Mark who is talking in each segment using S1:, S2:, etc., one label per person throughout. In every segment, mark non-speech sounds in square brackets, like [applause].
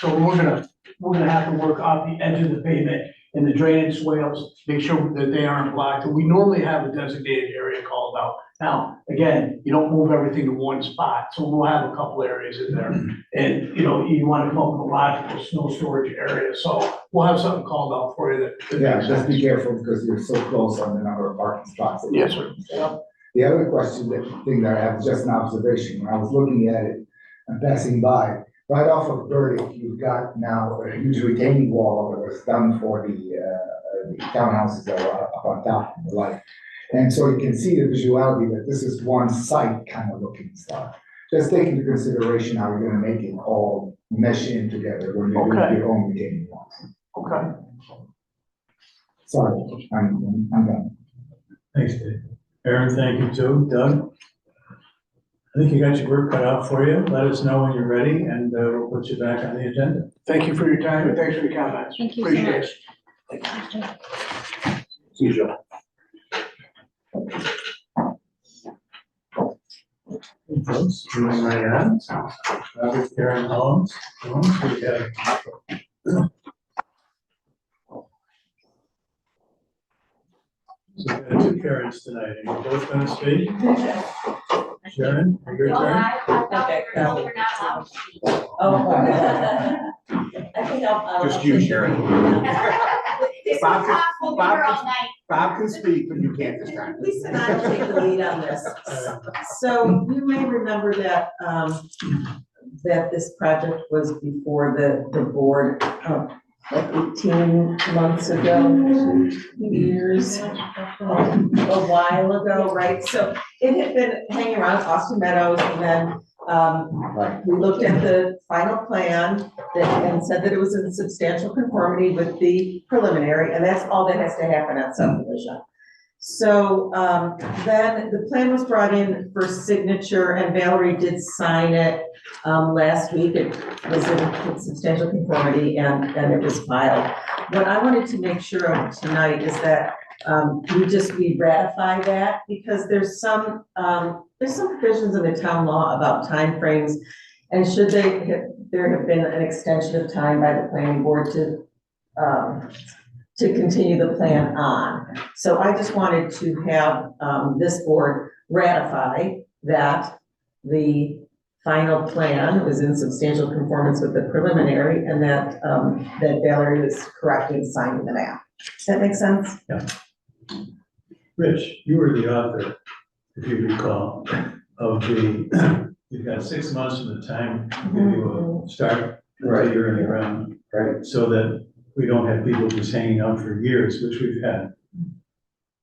S1: So we're gonna, we're gonna have to work off the edge of the pavement and the drainage swales, make sure that they aren't blocked. We normally have a designated area called out. Now, again, you don't move everything to one spot, so we'll have a couple areas in there. And, you know, you wanna come up with a logical snow storage area, so we'll have something called out for you that- that.
S2: Yeah,
S1: makes
S2: just be
S1: sense.
S2: careful because you're so close on the number of parking spots. that you
S1: Yes, sir.
S2: have. The other question, that thing that I have, is just an observation, when I was looking at it and passing by, right off of Burdick, you've got now a huge retaining wall that was done for the, uh, the townhouses that were up on top and the like. And so you can see the visuality that this is one site kind of looking stuff. Just take into consideration how you're gonna make it all mesh in together when you
S1: Okay.
S2: do your own retaining walls.
S1: Okay.
S2: Sorry, I'm, I'm done.
S3: Thanks, Dave. Aaron, thank you too. Doug? I think you got your work cut out for you. Let us know when you're ready and uh, we'll put you back on the agenda.
S1: Thank you for your time and thanks for the comments.
S4: Thank you so
S1: Appreciate
S4: much.
S1: it. See you, Joe.
S3: Hey, Folks, join my end. Robert, Karen, Holmes. Holmes, we have So we've got two Karens tonight. Are you both going to speak? Sharon, your
S5: Well,
S3: turn.
S5: I, I thought we
S6: Okay,
S5: were told we're not allowed to speak.
S6: Oh. [laughs] I think I'll. I'll- uh,
S7: Just you,
S6: [laughs]
S7: Sharon.
S5: This is
S7: Bob can-
S5: possible, we
S7: Bob
S5: were
S7: can-
S5: all night.
S7: Bob can speak, but you can't this time.
S6: Lisa and I will take the lead on this. [laughs] So you may remember that, um, that this project was before the, the board, uh, like eighteen months
S7: Mm-hmm.
S6: ago, years, um, a while ago, right? So it had been hanging around Austin Meadows and then, um,
S2: Right.
S6: we looked at the final plan that, and said that it was in substantial conformity with the preliminary, and that's all that has to happen on subdivision. So, um, then the plan was brought in for signature and Valerie did sign it, um, last week. It was in substantial conformity and, and it was filed. What I wanted to make sure of tonight is that, um, we just, we ratify that because there's some, um, there's some provisions in the town law about timeframes and should they, have- there have been an extension of time by the planning board to, um, to continue the plan on. So I just wanted to have, um, this board ratify that the final plan was in substantial conformance with the preliminary and that, um, that Valerie was correct in signing the map. Does that make sense?
S3: Rich, you were the author, if you recall, of the, [clears throat] you've got six months from the time you uh, start until
S2: Right.
S3: you're in the ground.
S2: Right.
S3: So that we don't have people just hanging out for years, which we've had.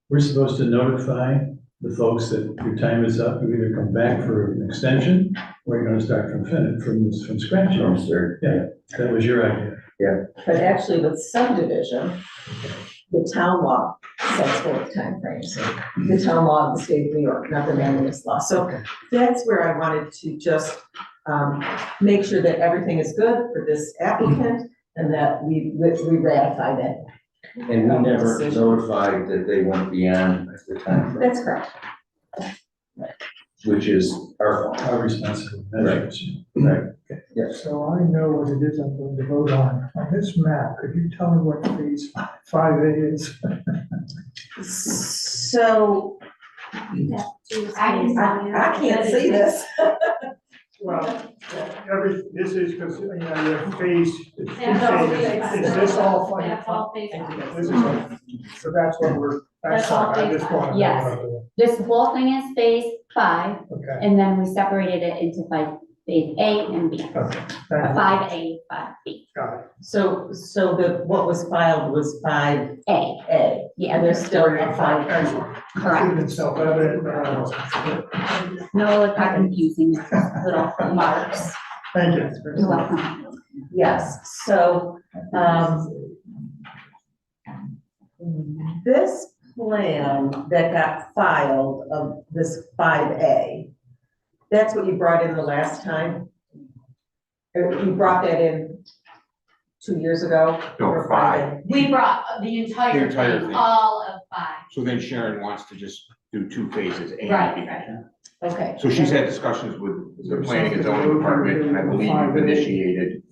S3: We're supposed to notify the folks that your time is up, you either come back for an extension, or you're gonna start from fin, from, from scratch. That was your idea.
S6: But actually with subdivision, the town law sets forth timeframes. The town law of the state of New York, not the land use law. So that's where I wanted to just um, make sure that everything is good for this applicant and that we, we ratify that.
S8: And we never
S6: Decision.
S8: notified that they went beyond the timeframe,
S6: That's correct.
S8: which is our fault.
S3: How responsible, that's
S9: So I know what it is I'm going to vote on. On this map, could you tell me what phase five A is?
S6: So
S5: I can sign it.
S6: I can't see this.
S9: Well, every, this is, because, you know, your phase, it's two
S5: That's all
S9: phases.
S5: phase
S9: is this all funny?
S5: That's all phase five.
S9: This is, all- so that's what we're, that's
S4: That's all
S9: fine, I
S4: phase
S9: just want to
S4: yes.
S9: know.
S4: This whole thing is phase five,
S9: Okay,
S4: and then we separated it into five, phase A and B,
S9: okay, thank you,
S4: five A, five B,
S9: got it.
S6: So, so the, what was filed was five
S4: A,
S6: A.
S4: yeah, there's still a five,
S9: Excellent.
S4: correct?
S9: Even self-evident, but uh, I don't know.
S4: No, it's not confusing, it's just little marks.
S9: Thank you.
S4: You're welcome.
S6: Yes, so, um, this plan that got filed of this five A, that's what you brought in the last time? Or You brought that in two years ago?
S7: No,
S6: for
S7: five.
S6: 5A?
S5: We brought the
S7: The
S5: entire
S7: entire
S5: thing,
S7: thing.
S5: all of five.
S7: So then Sharon wants to just do two phases, A
S5: Right,
S7: and B.
S5: right.
S6: Okay.
S7: So she's had discussions with the planning and zoning department, and I believe you've initiated